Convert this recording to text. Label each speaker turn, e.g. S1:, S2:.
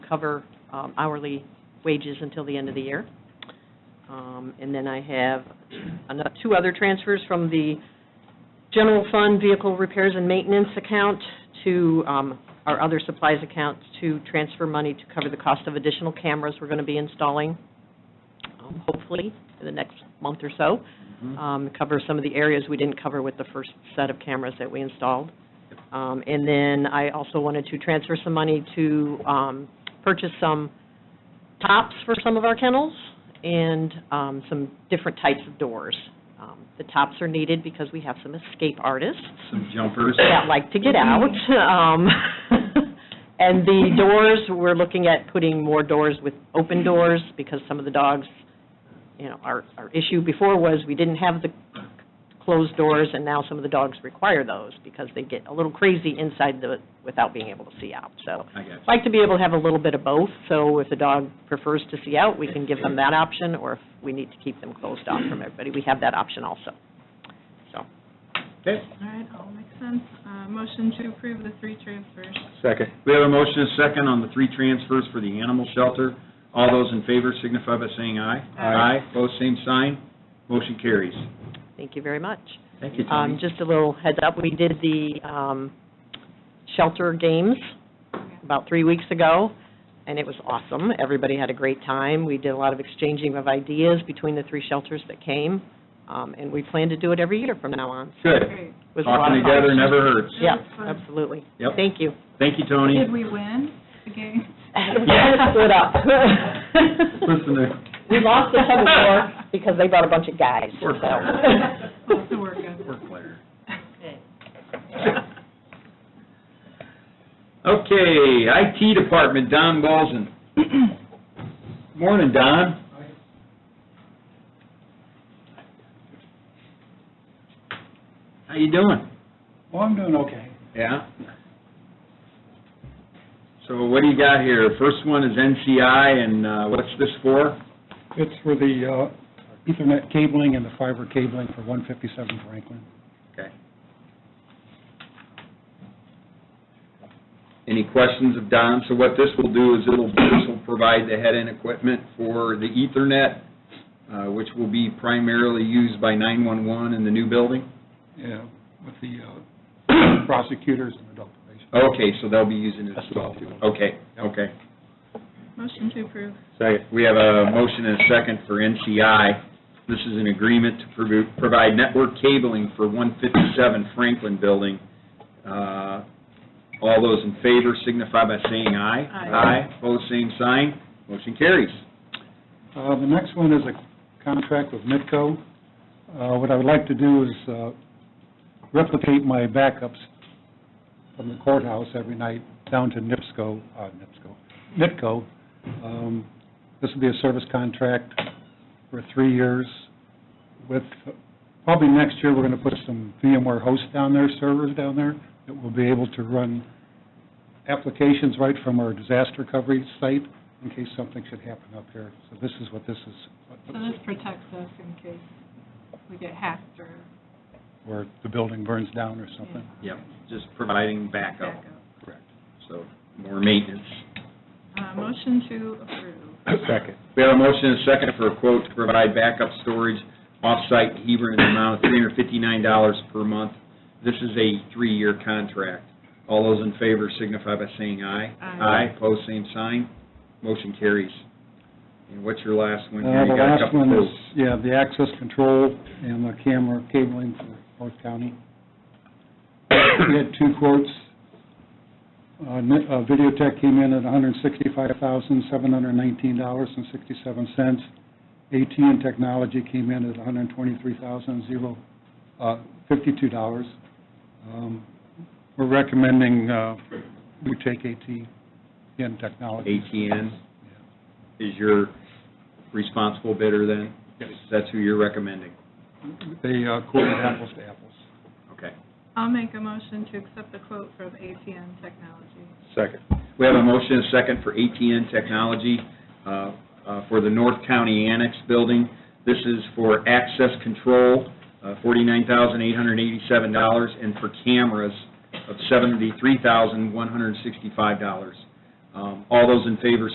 S1: cover um, hourly wages until the end of the year. Um, And then I have ano- two other transfers from the general fund vehicle repairs and maintenance account to um, our other supplies account to transfer money to cover the cost of additional cameras we're going to be installing, um, hopefully, in the next month or so
S2: Mm-hmm.
S1: um, cover some of the areas we didn't cover with the first set of cameras that we installed. Um, And then I also wanted to transfer some money to um, purchase some tops for some of our kennels and um, some different types of doors. Um, The tops are needed because we have some escape artists
S2: Some jumpers.
S1: that like to get out. Um, And the doors, we're looking at putting more doors with open doors because some of the dogs, you know, our, our issue before was we didn't have the closed doors and now some of the dogs require those because they get a little crazy inside the, without being able to see out. So
S2: I got you.
S1: like to be able to have a little bit of both, so if the dog prefers to see out, we can give them that option, or if we need to keep them closed off from everybody, we have that option also. So,
S2: Okay.
S3: All right, all makes sense. Uh, Motion to approve the three transfers.
S4: Second.
S2: We have a motion and a second on the three transfers for the animal shelter. All those in favor signify by saying aye.
S3: Aye.
S2: Aye, pose same sign, motion carries.
S1: thank you very much.
S2: Thank you,
S1: Um, just a little heads up, we did the, um, shelter games about three weeks ago, and it was awesome. Everybody had a great time. We did a lot of exchanging of ideas between the three shelters that came, um, and we plan to do it every year from now on.
S2: Good.
S3: Great.
S1: It was a lot
S2: Talking
S1: of fun.
S2: together never hurts.
S1: Yeah,
S3: That was fun.
S1: absolutely.
S2: Yep.
S1: Thank you.
S2: Thank you, Tony.
S3: Did we win the game?
S1: We kind of split up.
S2: Listen to,
S1: We lost the tug of war because they brought a bunch of guys,
S2: Poor
S1: so.
S3: Lots of work on
S2: work later. Okay, IT Department, Don Bolson. Morning, Don. How you doing?
S5: Well, I'm doing okay.
S2: Yeah. So what do you got here? First one is NCI, and uh, what's this for?
S5: It's for the uh, Ethernet cabling and the fiber cabling for 157 Franklin.
S2: Okay. Any questions of Don? So what this will do is it'll, this will provide the head-end equipment for the Ethernet, uh, which will be primarily used by 911 in the new building?
S5: Yeah, with the uh, prosecutors and adult probation.
S2: Okay, so they'll be using it as well, too. Okay, okay.
S3: Motion to approve.
S2: Second. We have a motion and a second for NCI. This is an agreement to provi- provide network cabling for 157 Franklin Building. Uh, All those in favor signify by saying aye.
S3: Aye.
S2: Aye, pose same sign, motion carries.
S5: Uh, The next one is a contract with Midco. Uh, What I would like to do is uh, replicate my backups from the courthouse every night down to NIPSCO, uh, NIPSCO, Midco. Um, This will be a service contract for three years with, probably next year, we're going to put some VMware hosts down there, servers down there, that will be able to run applications right from our disaster recovery site in case something should happen up here. So this is what this is, what-
S3: So this protects us in case we get hacked or
S5: where the building burns down or
S3: you know,
S5: something.
S2: Yep, just providing backup,
S3: backup.
S5: Correct.
S2: so more maintenance.
S3: Uh, Motion to approve.
S5: Second.
S2: We have a motion and a second for a quote to provide backup storage off-site to Hebron in the amount of $359 per month. This is a three-year contract. All those in favor signify by saying aye.
S3: Aye.
S2: Aye, pose same sign, motion carries. And what's your last one? here?
S5: Uh,
S2: You
S5: the
S2: got a
S5: last
S2: couple
S5: one is,
S2: quotes.
S5: yeah, the access control and the camera cabling for North County. We had two quotes. Uh, Ni- uh, Videotech came in at hundred and sixty-five thousand, seven hundred and nineteen dollars and sixty-seven cents. AT&T Technology came in at 123,000 hundred and twenty-three thousand, zero, uh, fifty-two dollars. Um, we're recommending, uh, we take AT&T Technology.
S2: ATN is your responsible bidder then?
S5: Yes.
S2: That's who you're recommending?
S5: They, uh, quoted apples to apples.
S2: Okay.
S3: I'll make a motion to accept the quote from ATN Technology.
S2: Second. We have a motion and a second for ATN Technology uh, uh, for the North County Annex Building. This is for access control, uh, $49,887, and for cameras of $73,165. Um, All those in favor